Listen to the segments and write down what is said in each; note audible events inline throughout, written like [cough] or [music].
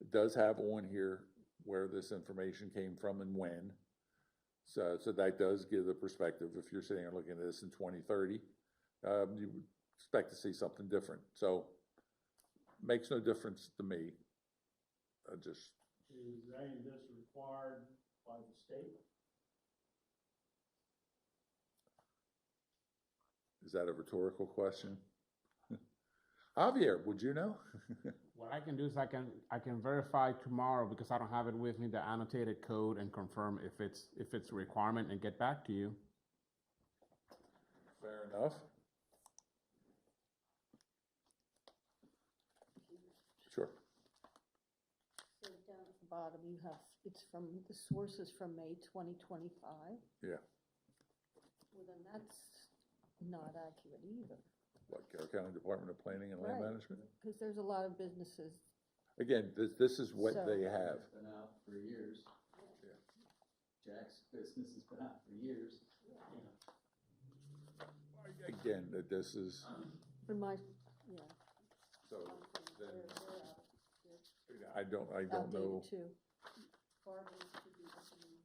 it does have on here where this information came from and when. So, so that does give the perspective, if you're sitting and looking at this in twenty thirty, um, you would expect to see something different, so makes no difference to me. I just, Is any of this required by the state? is that a rhetorical question? [laughs] Javier, would you know? [laughs] What I can do is I can, I can verify tomorrow because I don't have it with me, the annotated code and confirm if it's, if it's a requirement and get back to you. Fair enough. Sure. So down at the bottom, you have, it's from, the source is from May twenty twenty-five. Yeah. Well, then that's not accurate either, Like our County Department of Planning and Land Right. Management? because there's a lot of businesses. Again, this, this is what So- they have. It's Been out for years. Yeah. Jack's business has been out for years. Again, that this is, In my, yeah. so then, they're- they're out- I don't, I don't know. Outdated too. Barbers could be listening,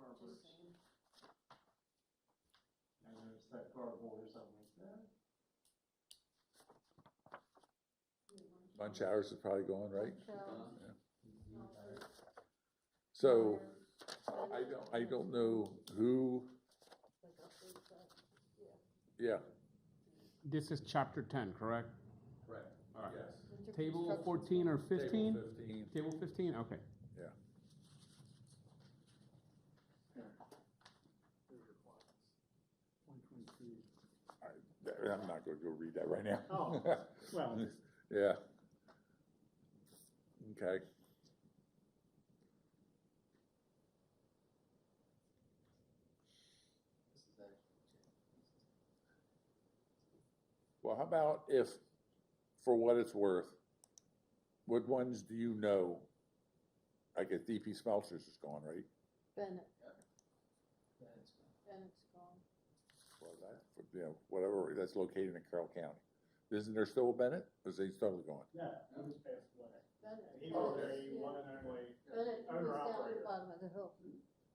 Carver, just saying. I noticed that cardboard or something like that. Lunch hours is probably gone, right? Hotels, So bars, I don't, I don't know who, like updates that. yeah. This is chapter ten, correct? Right, All right. Winter Table construction. fourteen or fifteen? Fifteen. Table fifteen, okay. One twenty-two. I- I'm not gonna go read that right now. Oh. Well, [laughs] Yeah. Okay. This is actually Jack's. Well, how about if, for what it's worth, what ones do you know? I guess DP Smelters is gone, right? Bennett, That's been- Bennett's gone. Well, that, you know, whatever, that's located in Carroll County. Isn't there still a Bennett? Or is he totally gone? yeah, that was passed away. Bennett. He oh, was a yeah. one and only, Bennett was owner down at operator. the bottom of the hill.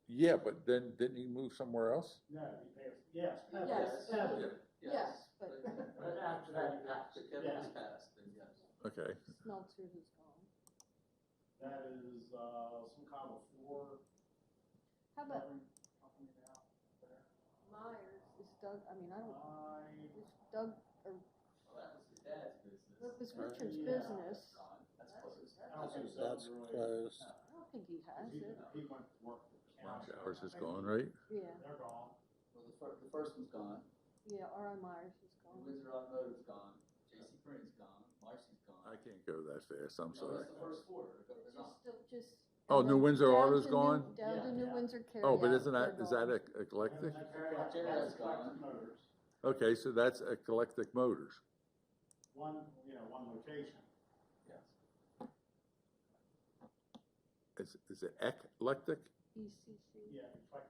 Yeah, but then, didn't he move somewhere else? no, he passed, yes. uh, Pepper, Pepper. Yes. Yes, but- uh, But after that, you have After to- Kevin was yeah. passed, then yes. Okay. Smelter was gone. That is, uh, some kind of floor How about covering, covering it out there. Myers is Doug, I mean, I don't, I, is Doug, Well, that was his dad's business. That was Right? Richard's Yeah, business. that's gone. That's That- closed. I don't think so. That's really. closed. I don't think he has He, it, he went to work for the Lunch county. hours is gone, right? yeah, They're gone. Well, the fir- the first one's gone, yeah, R.I. Myers is gone. Windsor Automotive's gone, J.C. Penney's gone, Marcy's gone. I can't go that fast, I'm No, sorry. that's the first four, they're go- they're Just, gone. still- just. Oh, and New then Windsor down Auto's to New- gone? Down Yeah. to New Windsor Carryout. Oh, but isn't that, they're is that gone. ec- eclectic? And that's- Jared's that's Collective gone. Motors. Okay, so that's Eclectic Motors. One, you know, one location. Yes. Is, is it eclectic? ECC. Yeah, it's like,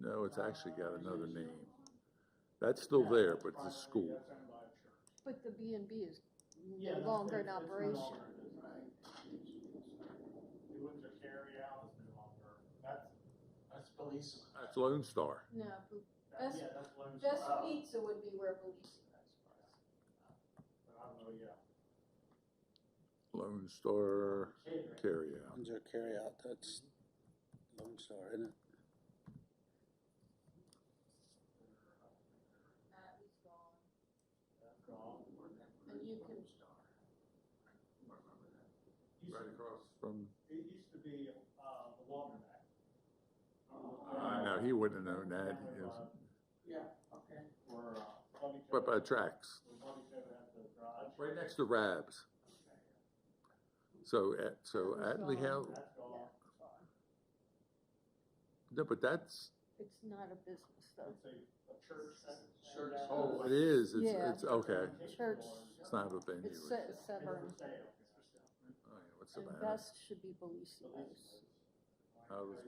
No, it's actually got another name. That's still yeah, there, that's but it's a privately school. that's owned by a church. But the B and B is Yeah, no that's- longer in it's- it's no operation. longer in business. The Windsor Carry Out is no longer, that's, That's police. That's Lone Star. No, that, Best- yeah, that's Lone Best Star. Pizza would be where Bellissimo's was. But I don't know, yeah. Lone Star Catering. Carryout. Windsor carryout, that's Lone Star, isn't it? Matt was gone. That's gone. And you can- Used to- across. From, It used to be, uh, the Walter Mac. I know, Uh, he wouldn't have known that, he was- Yeah, okay. Or, uh, Bobby right by Cove- the tracks, or Bobby Cove had the garage. right next to Rabs. So, at- so Atlee House, That's gone. Yeah, it's gone. no, but that's, It's not a business though. It's a, a church. that- Church. that- oh, it is, it's, Yeah. it's, okay. Church. It's not a venue. It's it's- Se- It's for Severn, sale. oh, yeah, What's the and matter? Best should be The lease Bellissimo's. was- I was